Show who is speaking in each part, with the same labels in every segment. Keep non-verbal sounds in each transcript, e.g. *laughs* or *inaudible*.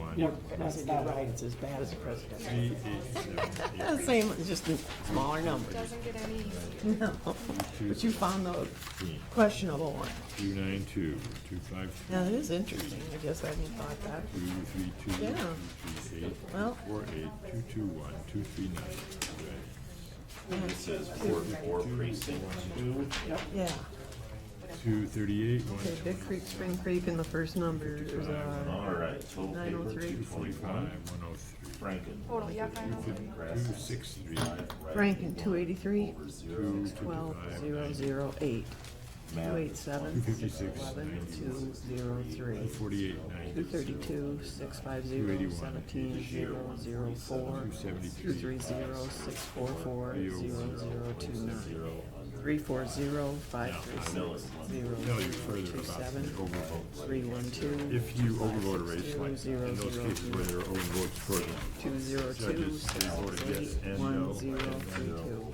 Speaker 1: on.
Speaker 2: No, that's not right, it's as bad as the presidential.
Speaker 1: Three, eight, seven, eight.
Speaker 2: Same, it's just in smaller numbers.
Speaker 3: Doesn't get any easier.
Speaker 2: No, but you found the questionable one.
Speaker 1: Two nine two, two five three,
Speaker 2: Now, that is interesting, I guess I hadn't thought that.
Speaker 1: two three two, two
Speaker 2: Yeah.
Speaker 1: three eight,
Speaker 2: Well-
Speaker 1: two four eight, two two one, two three nine. two
Speaker 4: It says Ward four precinct two.
Speaker 2: Yeah,
Speaker 1: eight, Two thirty-eight, one
Speaker 2: okay, Big
Speaker 1: twenty,
Speaker 2: Creek, Spring Creek, and the first number is, uh,
Speaker 4: All right, total
Speaker 2: Nine oh
Speaker 4: paper
Speaker 2: three.
Speaker 4: two
Speaker 1: two forty-five,
Speaker 4: forty-five.
Speaker 1: one oh three,
Speaker 4: Franken.
Speaker 3: Total, yeah, I know.
Speaker 1: two six three,
Speaker 2: Franken, two eighty-three,
Speaker 4: Over zero.
Speaker 1: two
Speaker 2: twelve,
Speaker 1: fifty-five,
Speaker 2: zero,
Speaker 1: nine,
Speaker 2: zero, eight, two eight seven,
Speaker 1: Two fifty-six,
Speaker 2: eleven,
Speaker 1: ninety-one.
Speaker 2: two, zero, three,
Speaker 1: two forty-eight, nine,
Speaker 2: two
Speaker 1: two
Speaker 2: thirty-two, six five zero, seventeen, zero, zero, four, two three zero, six four four, zero, zero, two nine.
Speaker 4: Zero under.
Speaker 2: Three four zero five three six zero
Speaker 1: tell you
Speaker 2: zero
Speaker 1: further
Speaker 2: two
Speaker 1: about the
Speaker 2: seven
Speaker 1: overvotes.
Speaker 2: three one two
Speaker 1: If you overvote a race,
Speaker 2: Zero,
Speaker 1: like
Speaker 2: zero,
Speaker 1: in those
Speaker 2: zero,
Speaker 1: cases where there are overvotes for the
Speaker 2: two zero two
Speaker 1: judges, they
Speaker 2: six
Speaker 1: voted
Speaker 2: six
Speaker 1: yes
Speaker 2: eight
Speaker 1: and
Speaker 2: one
Speaker 1: no.
Speaker 2: zero three two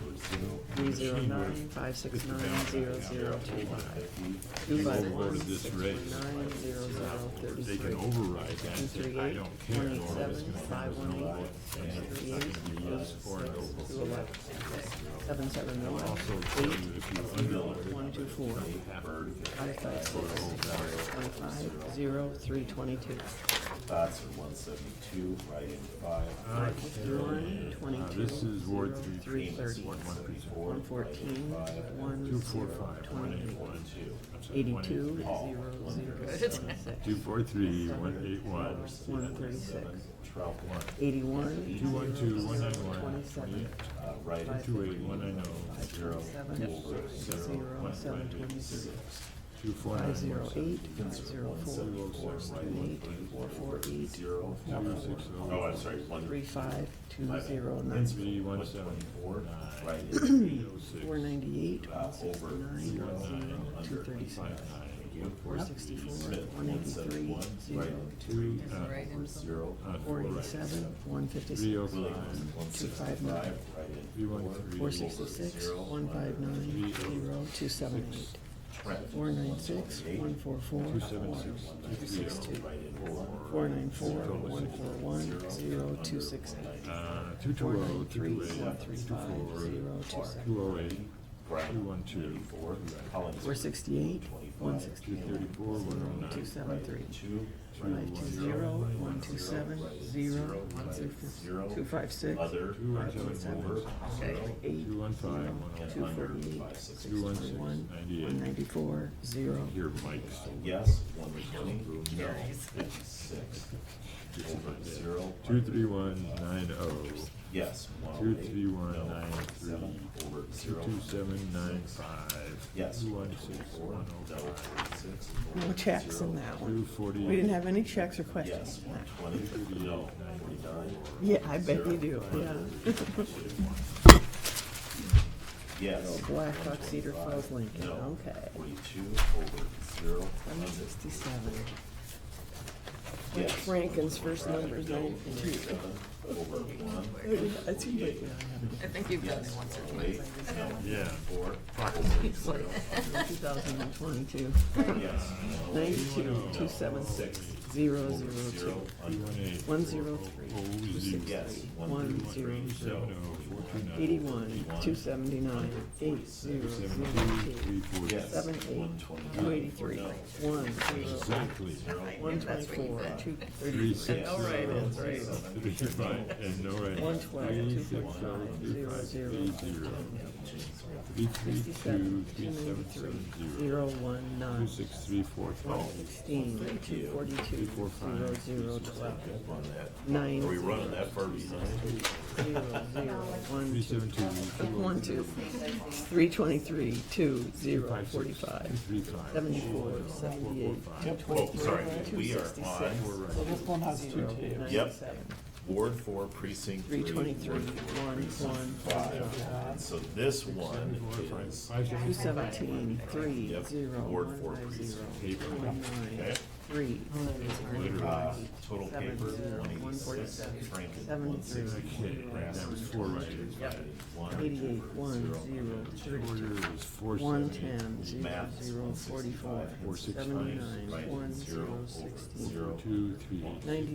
Speaker 2: three zero nine five six nine zero zero two five two
Speaker 1: You
Speaker 2: five one
Speaker 1: overvoted
Speaker 2: six
Speaker 1: this
Speaker 2: one
Speaker 1: race.
Speaker 2: nine zero zero thirty
Speaker 1: They can
Speaker 2: three.
Speaker 1: override that,
Speaker 2: Two
Speaker 1: and
Speaker 2: three
Speaker 1: say, I
Speaker 2: eight,
Speaker 1: don't care,
Speaker 2: one eight
Speaker 1: or
Speaker 2: seven,
Speaker 1: it's gonna
Speaker 2: five one eight, six three eight,
Speaker 1: be yes or no.
Speaker 2: two eleven, seven seven one,
Speaker 1: Tell you if you undervoted,
Speaker 2: one two four, five five six, twenty-five, zero, three twenty-two.
Speaker 4: Thoughts are one seventy-two, write-in five.
Speaker 2: Five fifty-one, twenty-two,
Speaker 1: this is
Speaker 2: zero,
Speaker 1: Ward three,
Speaker 2: three
Speaker 4: Payments,
Speaker 2: thirty,
Speaker 4: one seventy-four.
Speaker 2: one fourteen, one,
Speaker 1: two four
Speaker 2: zero,
Speaker 1: five, one eight
Speaker 2: twenty-eight,
Speaker 1: one two. I'm sorry, one eight
Speaker 2: eighty-two,
Speaker 1: three.
Speaker 2: zero, zero, twenty-six,
Speaker 1: Two four three, one eight one,
Speaker 2: one thirty-six,
Speaker 4: Trout one,
Speaker 2: eighty-one,
Speaker 1: two one two, one nine
Speaker 2: zero,
Speaker 1: one,
Speaker 2: twenty-seven,
Speaker 4: uh, write-in
Speaker 1: two eight, one nine
Speaker 2: five
Speaker 1: oh,
Speaker 2: twenty-seven, zero, seven twenty-six,
Speaker 1: two four nine
Speaker 2: Five
Speaker 1: one,
Speaker 2: zero eight, five zero four,
Speaker 1: four,
Speaker 2: two eight, four eight,
Speaker 4: zero.
Speaker 1: two six
Speaker 4: Oh,
Speaker 1: oh,
Speaker 4: I'm sorry, one
Speaker 2: three five, two zero nine,
Speaker 1: three one seven,
Speaker 4: twenty-four, write-in
Speaker 1: eight oh six,
Speaker 2: four ninety-eight,
Speaker 4: uh,
Speaker 2: one
Speaker 4: over
Speaker 2: sixty-nine,
Speaker 4: zero
Speaker 2: zero,
Speaker 4: nine,
Speaker 2: two
Speaker 4: under
Speaker 2: thirty-six,
Speaker 4: five nine.
Speaker 2: four sixty-four,
Speaker 4: Smith,
Speaker 2: one
Speaker 4: one
Speaker 2: eighty-three,
Speaker 4: seventy-one,
Speaker 2: zero,
Speaker 4: write-in
Speaker 1: two, uh,
Speaker 4: two, zero. uh,
Speaker 1: uh,
Speaker 2: four
Speaker 1: four right,
Speaker 2: eighty-seven, one
Speaker 1: three
Speaker 2: fifty-six,
Speaker 1: oh five,
Speaker 4: One
Speaker 2: two five nine,
Speaker 4: sixty-five, write-in
Speaker 1: three one
Speaker 2: four
Speaker 1: three,
Speaker 2: sixty-six, one five nine, zero, two seven eight,
Speaker 4: Trent,
Speaker 2: four nine six, one four four,
Speaker 1: two seven six, two three oh,
Speaker 4: write-in four,
Speaker 2: four nine four, one four one, zero, two six eight.
Speaker 1: uh, two two oh, two eight, two four,
Speaker 2: Zero, two seven.
Speaker 1: two oh eight, two one two,
Speaker 4: four, Collins,
Speaker 2: Four sixty-eight, one sixty,
Speaker 1: two thirty-four, one oh
Speaker 2: two
Speaker 1: nine,
Speaker 2: seven three.
Speaker 4: two,
Speaker 2: Five two zero, one two seven, zero, one six, two five six,
Speaker 4: other, uh,
Speaker 1: two one seven
Speaker 4: over,
Speaker 1: one,
Speaker 4: zero,
Speaker 2: eight,
Speaker 1: two one five, one oh
Speaker 2: two
Speaker 1: nine,
Speaker 2: forty-eight, six twenty-one, one
Speaker 1: ninety-eight.
Speaker 2: ninety-four, zero.
Speaker 1: Here, Mike, so
Speaker 4: yes, one twenty, no, fifty-six, over, zero,
Speaker 1: two three one nine oh,
Speaker 4: yes, one
Speaker 1: two
Speaker 4: oh eight,
Speaker 1: three one
Speaker 4: no,
Speaker 1: nine three,
Speaker 4: seven, over,
Speaker 1: two
Speaker 4: zero,
Speaker 1: two seven nine five,
Speaker 4: yes,
Speaker 1: two one
Speaker 4: one
Speaker 1: six,
Speaker 4: twenty-four,
Speaker 1: one
Speaker 4: no,
Speaker 1: oh five,
Speaker 4: forty-six,
Speaker 2: No checks in that
Speaker 1: two
Speaker 2: one.
Speaker 1: forty.
Speaker 2: We didn't have any checks or questions
Speaker 4: yes,
Speaker 2: in
Speaker 4: one
Speaker 2: that.
Speaker 4: twenty, no, forty-nine,
Speaker 2: Yeah, I bet you do, yeah.
Speaker 4: yes,
Speaker 2: Blackhawk Cedar Falls Lincoln,
Speaker 4: no,
Speaker 2: okay.
Speaker 4: forty-two, over, zero,
Speaker 2: One sixty-seven.
Speaker 4: yes.
Speaker 2: Rankin's first number is
Speaker 4: No,
Speaker 2: ninety-three.
Speaker 4: seven, over, one,
Speaker 2: It seems like, yeah, I
Speaker 5: I think you've done it
Speaker 4: Yes,
Speaker 5: once or
Speaker 4: one eight,
Speaker 5: twice.
Speaker 4: no,
Speaker 1: Yeah.
Speaker 4: four,
Speaker 5: *laughs*
Speaker 2: have it. two thousand and twenty-two,
Speaker 4: yes, no,
Speaker 2: ninety-two, two seven six, zero, zero, two.
Speaker 4: zero, under,
Speaker 1: One eight.
Speaker 2: One zero three, two six
Speaker 4: yes,
Speaker 2: three,
Speaker 4: one
Speaker 2: one
Speaker 4: three,
Speaker 2: zero
Speaker 1: Three
Speaker 2: zero.
Speaker 1: seven oh, four two nine.
Speaker 2: Eighty-one, two seventy-nine, eight zero zero
Speaker 1: Seven two,
Speaker 2: two.
Speaker 1: three four.
Speaker 4: yes,
Speaker 2: Seven
Speaker 4: one
Speaker 2: eight, two
Speaker 4: twenty-nine,
Speaker 2: eighty-three, one zero,
Speaker 1: Exactly.
Speaker 2: one twenty-four, two
Speaker 1: Three
Speaker 2: thirty-three,
Speaker 1: six.
Speaker 4: All
Speaker 1: right,
Speaker 4: right,
Speaker 2: three.
Speaker 1: Three five, and no right.
Speaker 2: one twelve, two
Speaker 1: Three six oh,
Speaker 2: forty-five,
Speaker 1: three
Speaker 2: zero
Speaker 1: five,
Speaker 2: zero,
Speaker 1: three zero. Three three two,
Speaker 2: sixty-seven, two
Speaker 1: three seven
Speaker 2: ninety-three,
Speaker 1: seven zero.
Speaker 2: zero one
Speaker 1: Two
Speaker 2: nine,
Speaker 1: six three four
Speaker 2: one
Speaker 1: five.
Speaker 2: sixteen, two forty-two, zero zero twelve,
Speaker 4: on that,
Speaker 2: nine
Speaker 4: are we
Speaker 2: zero
Speaker 4: running that far behind?
Speaker 2: zero one
Speaker 1: Three
Speaker 2: two.
Speaker 1: seven two. two oh *laughs*
Speaker 2: One
Speaker 1: zero,
Speaker 2: two, three twenty-three, two zero,
Speaker 1: five six,
Speaker 2: forty-five,
Speaker 1: Three five.
Speaker 2: seventy-four,
Speaker 1: four, four,
Speaker 2: seventy-eight,
Speaker 1: four,
Speaker 2: two
Speaker 1: five.
Speaker 4: Oh,
Speaker 2: twenty-three,
Speaker 4: sorry,
Speaker 2: two
Speaker 4: we are
Speaker 2: sixty-six,
Speaker 4: on
Speaker 1: We're right.
Speaker 2: one zero, ninety-seven,
Speaker 4: Ward four, precinct
Speaker 2: three
Speaker 4: three.
Speaker 2: twenty-three,
Speaker 4: Ward four,
Speaker 2: one, one,
Speaker 4: Five, so this one is,
Speaker 1: Five
Speaker 2: two
Speaker 1: seven.
Speaker 2: seventeen, three,
Speaker 4: Yep.
Speaker 2: zero,
Speaker 4: Ward
Speaker 2: one,
Speaker 4: four,
Speaker 2: five,
Speaker 4: precinct
Speaker 2: zero,
Speaker 1: paper.
Speaker 2: two, one, nine,
Speaker 4: Okay.
Speaker 2: three,
Speaker 4: uh, total paper,
Speaker 2: Seven, zero,
Speaker 4: one
Speaker 2: one
Speaker 4: eighty-six,
Speaker 2: forty-seven,
Speaker 4: Franken, one
Speaker 2: seventy-three,
Speaker 4: sixty,
Speaker 1: Okay,
Speaker 4: Grass,
Speaker 1: that was four right.
Speaker 4: one,
Speaker 2: eighty-eight, one, zero,
Speaker 1: Order
Speaker 2: thirty-two,
Speaker 1: is four
Speaker 2: one,
Speaker 1: seventy.
Speaker 2: ten, zero,
Speaker 4: Maths,
Speaker 2: zero,
Speaker 4: one
Speaker 2: forty-four,
Speaker 4: sixty-five,
Speaker 1: Four six five.
Speaker 2: seventy-nine,
Speaker 4: right,
Speaker 2: one,
Speaker 4: zero,
Speaker 2: zero,
Speaker 4: over,
Speaker 2: sixteen,
Speaker 4: zero,
Speaker 1: Two, three.
Speaker 2: ninety-nine,